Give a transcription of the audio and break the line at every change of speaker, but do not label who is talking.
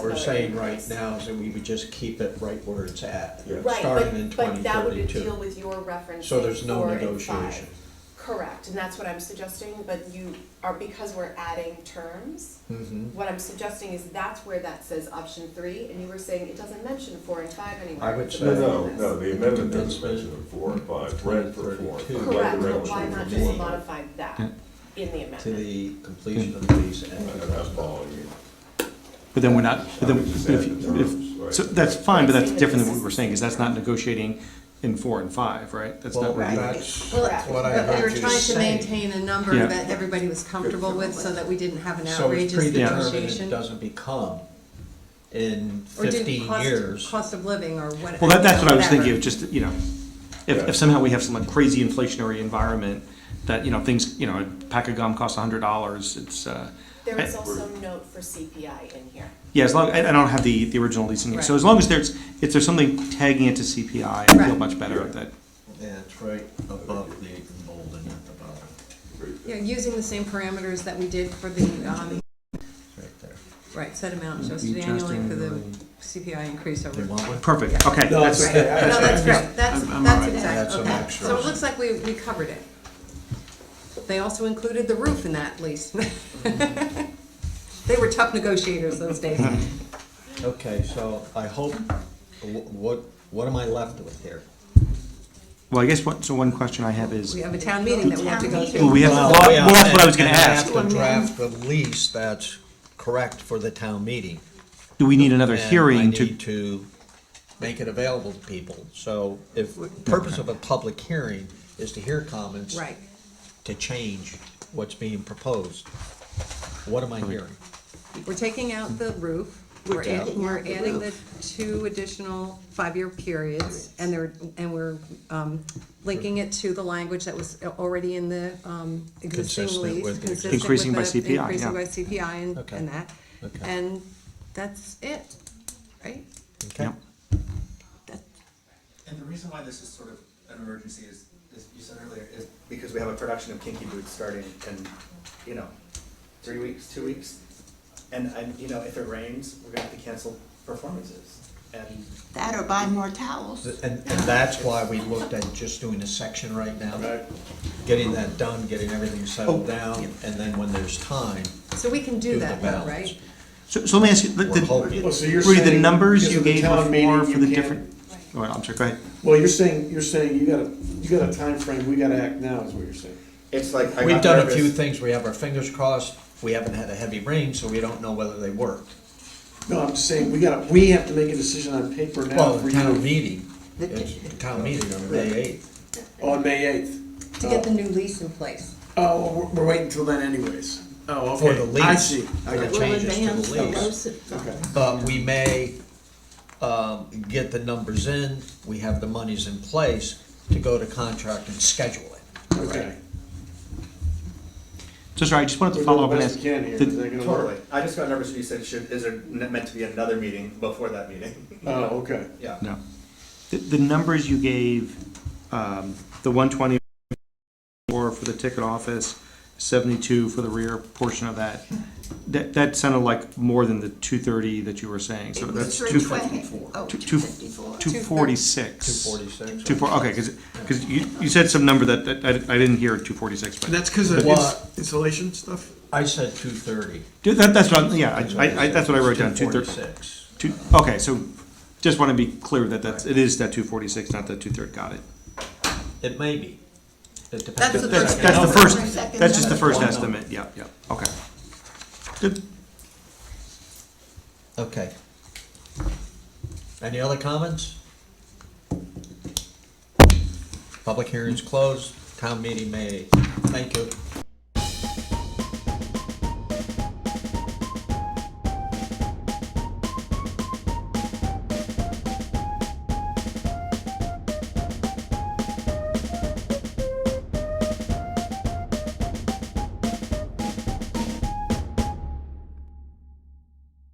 We're
Sorry.
saying right now is that we would just keep it right where it's at,
Yeah.
Right,
starting in
but, but
twenty
that would deal
thirty-two.
with your reference.
So there's no
four and five.
negotiation.
Correct, and that's what I'm suggesting, but you are, because we're adding terms,
Mhm.
what I'm suggesting is that's where that says option three, and you were saying it doesn't mention four and five anywhere.
I would
It's
say-
No,
not in
no,
this.
no, the amendment doesn't mention of four and five, red for four. and five,
Correct,
red
but
for
why
four.
not just modify that in the
To
amendment?
the completion of these
I- I'm not
and
following you.
But then we're not, but then,
I would just
but if,
add the terms,
if,
right.
so that's fine, but that's
Right.
different than what we're saying, because that's not negotiating in four and five, right? That's
Well,
not,
that's
really-
that's what I
But we were
heard you
trying to
say.
maintain a number
Yeah.
that everybody was comfortable with, so that we didn't have an
So it's
outrageous
predetermined, it
negotiation.
doesn't become in
Or didn't
fifteen
cost,
years.
cost of living or what.
well, that, that's what I was
whatever.
thinking, of just, you know, if,
Yeah.
if somehow we have some like crazy inflationary environment, that, you know, things, you know, a pack of gum costs a hundred dollars, it's, uh,
There
I-
is also note for CPI in here.
yeah, as long, I, I don't have the, the original leasing, so
Right.
as long as there's, if there's something tagging it to CPI, I feel
Right.
much better at that.
Yeah, it's right above the golden at the bottom,
Yeah, using the same parameters that we did for the, um,
It's right there.
right, set amount adjusted
Adjusting
annually for the
annually.
CPI increase over.
You want one?
Perfect, okay,
No,
that's,
it's-
No, that's great, that's,
I'm- I'm all
that's
right.
That's
exactly,
an
okay.
extra.
So it looks like we, we covered it. They also included the roof in that lease. They were tough negotiators those days.
Okay, so I hope, wh- what, what am I left with here?
well, I guess what, so one question I have is,
We have a town meeting that we have to go
well,
to.
we have, well,
yeah,
well, that's what I was gonna
and
ask,
have to draft a lease that's correct for the town meeting.
do we need another
and
hearing
I need to make it available to people. So if, purpose of a public hearing is to hear comments.
Right.
To change what's being proposed. What am I hearing?
We're taking out the roof, we're
taking
adding, we're adding the two additional five-year periods, and they're, and we're, um, linking it to the language that was already in the, um, existing
Consistent
lease.
with the
consistent
Increasing
with
by
the-
CPI, yeah.
Increasing by CPI and,
Okay.
and that,
Okay.
and that's it, right?
Okay?
Yep.
That-
And the reason why this is sort of an emergency is, as you said earlier, is because we have a production of Kinky Boots starting in, you know, three weeks, two weeks. And, and, you know, if it rains, we're gonna have to cancel performances. And
That or buy more towels.
And, and that's why we looked at just doing a section right now.
Right.
Getting that done, getting everything settled
Oh.
down, and then when there's time,
So we can
Do
do
the
that now,
balance.
right?
So, so let me ask you, the,
we're hoping.
the,
Well, Oh, so you're
Rudy, the
saying
numbers
because
you
of the
gave
town
before
meeting,
for
you
the
can't-
different, oh, I'm sorry, go ahead.
Well, you're saying, you're saying you got a, you got a time frame. we gotta act now is what you're saying.
it's like, I
We've
got
done a few
nervous.
things, we have our fingers crossed, we haven't had a heavy rain, so we don't know whether they worked.
No, I'm just saying, we gotta, we have to make a decision on paper now
Well,
for
the town
you
meeting, it's the town meeting on May eighth.
on May eighth.
To get the new lease in place.
Oh, well, we're, we're waiting till then anyways. Oh,
For
okay.
the lease.
I see. I
For
got
the
you.
changes to the lease.
Okay.
But we may, um, get the numbers in, we have the monies in place to go to contract and schedule it.
Okay.
So sorry, I just wanted
We're
to
doing
follow
the
up and
best
ask.
we can here.
the-
Is that gonna
Totally.
work?
I just got nervous when you said, should, is there n- meant to be another meeting before that meeting?
Oh, okay.
Yeah.
No, the, the numbers you gave, um, the one twenty four for the ticket office, seventy-two for the rear portion of that. That, that sounded like more than the two thirty that you were saying, so
It
that's
was
two.
320. Oh,
Two, two,
254.
two forty-six.
Two forty-six.
Two four, okay, because, because you, you said some number that, that I, I didn't hear two forty-six, but.
That's because of
What?
ins- insulation stuff?
I said two thirty.
Dude, that, that's what, yeah, I, I, I- that's what I wrote down, two
Two
thirty,
forty-six.
two, okay, so just want to be clear that that's, it is that two forty-six, not that two-third, got it.
It may be. It depends.
That's the
That's,
first
that's the
number.
first,
Second
that's just the
number.
first
One
estimate, yeah, yeah, okay. Good,
Okay. Any other comments? Public hearing's closed, town meeting may, thank you.